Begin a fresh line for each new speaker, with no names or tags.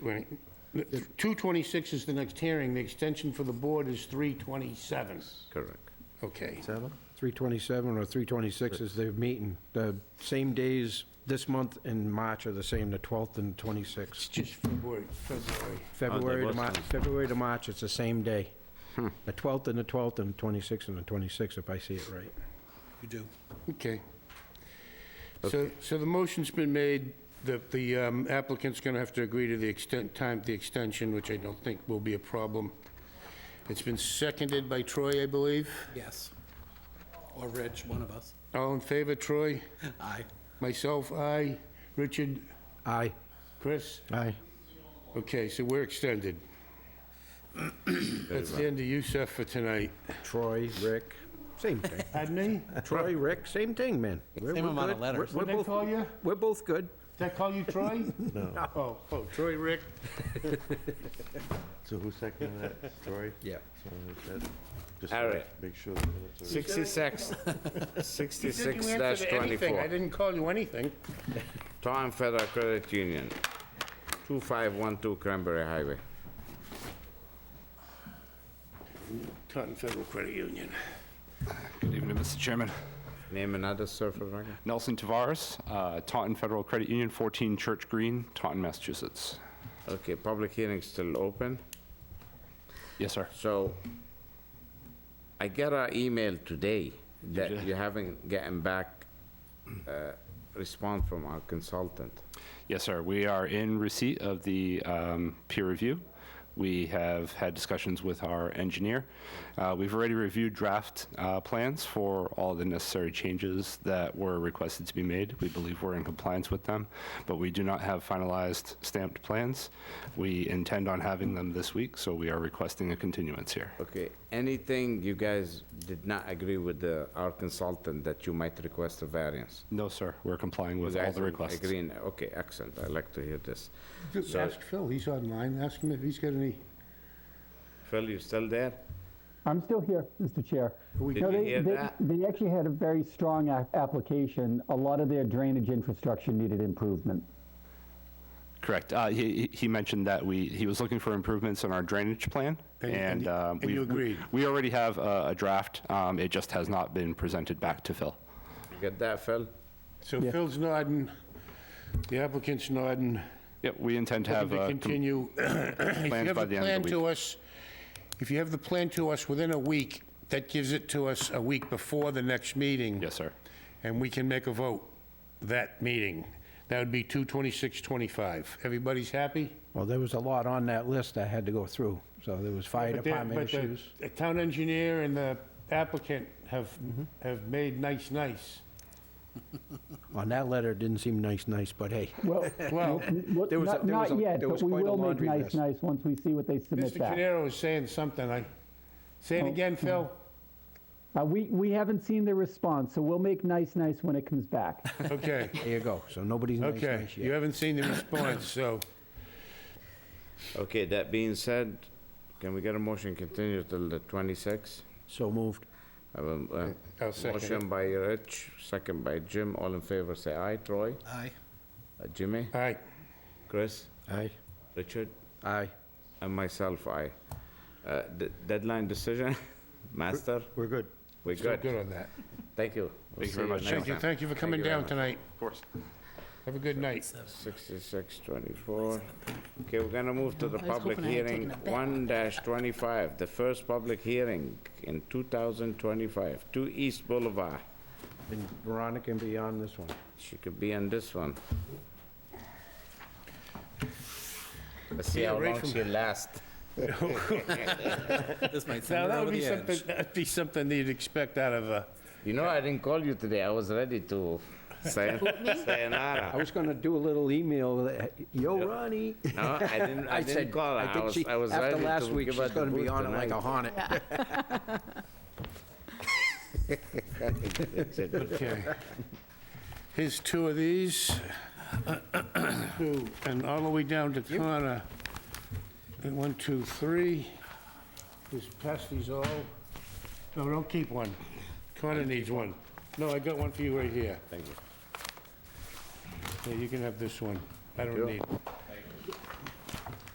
Right. 226 is the next hearing, the extension for the board is 327.
Correct.
Okay.
327 or 326 is the meeting. The same days this month and March are the same, the 12th and 26th.
It's just February, February.
February to
was
March,
some-
February to March, it's the same day. The 12th and the 12th and 26th and the 26th, if I see it right.
You do.
Okay. So, so the motion's been made that the um, applicant's going to have to agree to the extent, time, the extension, which I don't think will be a problem. It's been seconded by Troy, I believe.
Yes. Or Reg, one of us.
All in favor, Troy?
Aye.
Myself, aye. Richard,
Aye.
Chris?
Aye.
Okay, so we're extended. That's the end of you, Seth, for tonight.
Troy, Rick, same thing.
Pardon me?
Troy, Rick, same thing, man. We're-
Same
we're
amount of
good. We're-
letters.
we're
Did I
both-
call you?
We're both good.
Did I call you Troy? No. Oh, oh, Troy, Rick.
So who seconded that, Troy?
Yeah.
Someone who said- Just
All
to
right.
Make sure the minutes are.
66,
You didn't
66
answer
dash
to anything. I
24.
didn't call you anything.
Tom Federal Credit Union, 2512 Cranberry Highway.
Taunton Federal Credit Union.
Good evening, Mr. Chairman.
Name another surfer record?
Nelson Tavares, uh, Taunton Federal Credit Union, 14 Church Green, Taunton, Massachusetts.
Okay, public hearing's still open.
Yes, sir.
So I got an email today that you haven't gotten back uh, response from our consultant.
Yes, sir. We are in receipt of the um, peer review. We have had discussions with our engineer. Uh, We've already reviewed draft uh, plans for all the necessary changes that were requested to be made. We believe we're in compliance with them, but we do not have finalized stamped plans. We intend on having them this week, so we are requesting a continuance here.
Okay, anything you guys did not agree with the, our consultant that you might request a variance?
No, sir. We're complying
You
with all
guys
the requests.
Agreeing, okay, excellent, I like to hear this.
Ask Phil, he's online. Ask him if he's got any.
Phil, you still there?
I'm still here, Mr. Chair.
Did you
No, they-
hear
they-
that?
They actually had a very strong a- application. A lot of their drainage infrastructure needed improvement.
Correct. Uh, He he mentioned that we, he was looking for improvements on our drainage plan,
And- and-
and... um,
and you
we've-
agreed.
We already have a a draft. Um, It just has not been presented back to Phil.
You Get that, Phil?
So Phil's nodding, the applicant's nodding.
Yep, we intend to
Have
have...
to
uh, com-
continue. If you
plans
have
by
the
the end
plan
of the
to
week.
us, if you have the plan to us within a week, that gives it to us a week before the next meeting.
Yes, sir.
And we can make a vote that meeting. That would be 22625. Everybody's happy?
Well, there was a lot on that list I had to go through, so there was fire
But the-
department
but the-
issues.
The town engineer and the applicant have, have made nice, nice.
On that letter, it didn't seem nice, nice, but hey.
Well,
Well,
what-
there was a-
not
there was
not
a-
yet,
there
but
was
we
quite a
will make
laundry
nice,
list.
nice once we see what they submit
Mr.
back.
Canaro is saying something. I, say it again, Phil.
Uh, We we haven't seen their response, so we'll make nice, nice when it comes back.
Okay,
There you go. So nobody's nice,
okay.
nice
You
yet.
haven't seen the response, so
Okay, that being said, can we get a motion continue till the 26th?
So moved.
I will, uh,
I'll second it.
Motion by Rich, second by Jim, all in favor, say aye. Troy?
Aye.
Uh, Jimmy?
All right,
Chris?
Aye.
Richard?
Aye.
And myself, aye. Uh, d- Deadline decision, master?
We're good.
We're
still
good.
good on that.
Thank you. We'll
Thank you very
see
much,
next
Thank you,
time.
thank you for coming
you very
down
much.
tonight.
Of course.
Have a good night.
6624. Okay, we're gonna move to the public hearing, 1-25, the first public hearing in 2025, 2 East Boulevard.
And Veronica can be on this one.
She could be on this one. Let's see how
right
long
from-
she lasts.
This might
Now,
send her
that
over
would be
the
something,
edge.
that'd be something that you'd expect out of a,
You know, I didn't call you today, I was ready to say,
I
sayonara.
was gonna do a little email, uh, yo, Ronnie.
No, I didn't, I didn't
said-
call her,
I
I
think
was,
she-
I was ready to
After
give her
last week, she's
the
gonna be
boot
on it like
tonight.
a hornet.
okay. Here's two of these. Two, And all the way down to Connor. And One, two, three. Just pass these all. No, don't keep one. Connor needs one. No, I got one for you right here. Thank you. Yeah, you can have this one. I don't need,